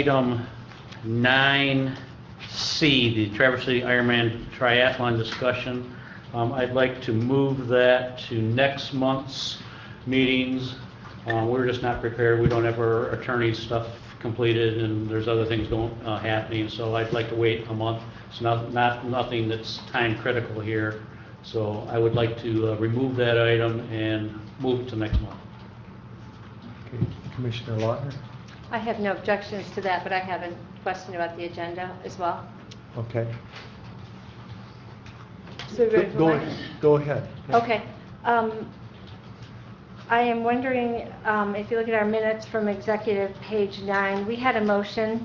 Item 9C, the Traverse City Ironman Triathlon discussion. Um, I'd like to move that to next month's meetings. Uh, We're just not prepared, we don't have our attorney stuff completed, and there's other things going, uh, happening, so I'd like to wait a month. It's not, not, nothing that's time critical here, so I would like to uh, remove that item and move it to next month. Okay, Commissioner Lautner? I have no objections to that, but I have a question about the agenda as well. Okay. So we're ready for Go- mine? Go ahead. Okay. um, I am wondering, um, if you look at our minutes from executive page nine, we had a motion.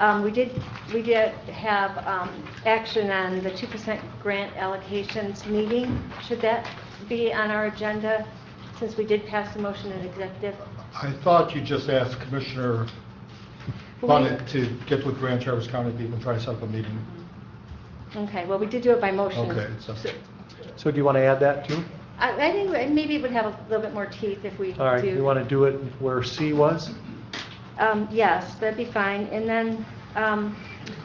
Um, We did, we did have um, action on the 2% grant allocations meeting. Should that be on our agenda since we did pass the motion in executive? I thought you just asked Commissioner Bonnet to get with Grand Traverse County people and try to set up a meeting. Okay, well, we did do it by motion. Okay, so- So do you want to add that too? I I think maybe it would have a little bit more teeth if we do. All right, you want to do it where C was? Um, Yes, that'd be fine. And then um,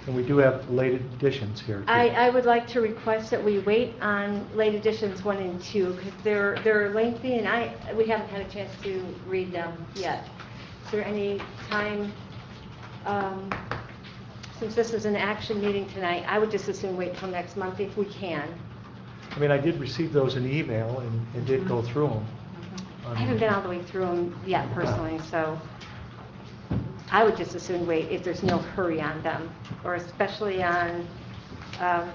And we do have late additions here. too. I, I would like to request that we wait on late editions one and two because they're, they're lengthy and I, we haven't had a chance to read them yet. Is there any time, um, since this is an action meeting tonight, I would just assume wait till next month if we can. I mean, I did receive those in email and and did go through them. Um, I haven't been all the way through them yet personally, so I would just as soon wait if there's no hurry on them, or especially on, um,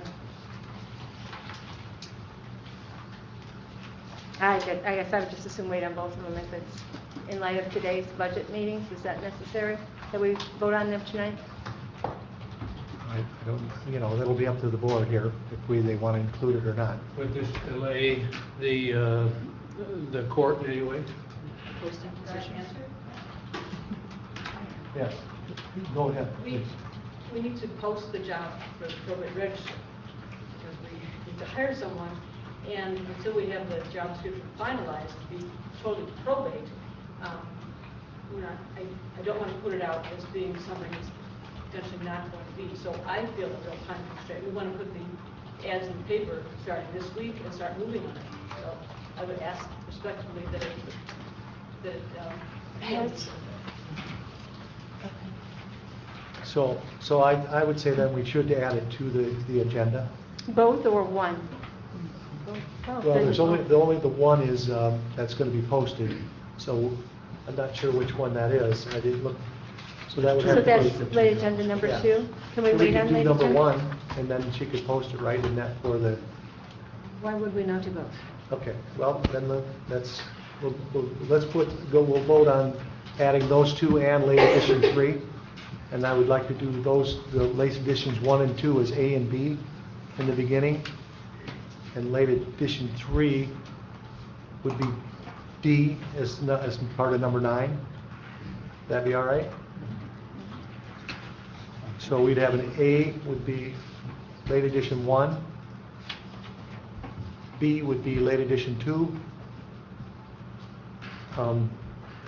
I gu- I guess I would just as soon wait on both of them if it's in light of today's budget meetings. Is that necessary that we vote on them tonight? I I don't, you know, that'll be up to the board here, if we, they want to include it or not. Would this delay the, uh, the court in any way? Yes. Go ahead, We, please. we need to post the job for the probate register, because we need to hire someone, and until we have the job description finalized, to be totally probate, um, we're not, I, I don't want to put it out as being something that's potentially not going to be, so I feel that there's time constraint, we want to put the ads in the paper starting this week and start moving on it, so I would ask respectfully that it, that, it, um, Yes. So, so I, I would say that we should add it to the, the agenda. Both or one? Well, there's only, the only, the one is, um, that's going to be posted, so I'm not sure which one that is. I didn't look, so that would have. So to go- that's late agenda number Yeah. two? Can we So wait on do late agenda? number one, and then she could post it right in that for the, Why would we not do both? okay, well, then the- that's, we'll, we'll- let's put, go, we'll vote on adding those two and late edition three. And I would like to do those, the late editions one and two as A and B in the beginning. And late edition three would be D as, nu- as part of number nine. That'd be all right? So we'd have an A would be late edition one. B would be late edition two. Um,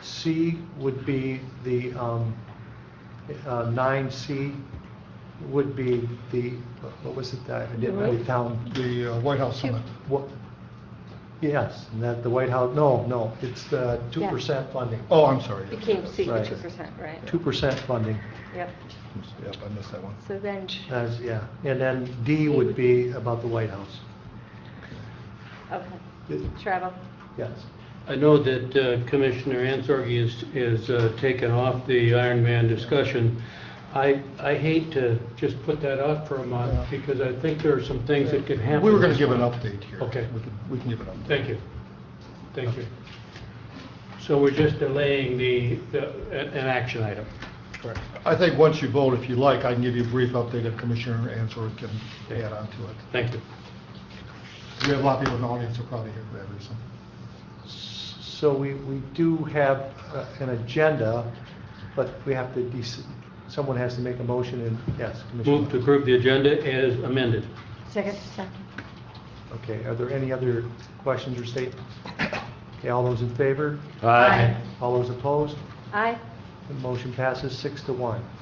C would be the, um, uh, nine C would be the, what was it, that I didn't write it down? The uh, White House Summit. What, yes, and that the White House, no, no, it's the two percent funding. Oh, I'm sorry. Became secret Right. two percent, right? Two percent funding, Yep, Yep, I missed that one. so then, as, yeah, and then D would be about the White House. okay, It- travel. Yes, I know that uh, Commissioner Ansorgi is, is uh, taken off the Iron Man discussion. I, I hate to just put that off for a month because I think there are some things that could happen. We were going this to give an month. update here. Okay. We can- We can give an update. Thank you. Thank you. So we're just delaying the, the- an an action item. Correct. I think once you vote, if you like, I can give you a brief update if Commissioner Answer can add on to it. Thank you. We have a lot of people in the audience who probably hear that reason. so we, we do have uh, an agenda, but we have to, dec- someone has to make a motion and, yes, Commissioner. Move to approve the agenda as amended. Second. Okay, are there any other questions or statements? Okay, all those in favor? Aye. All those opposed? Aye, The motion passes six to one.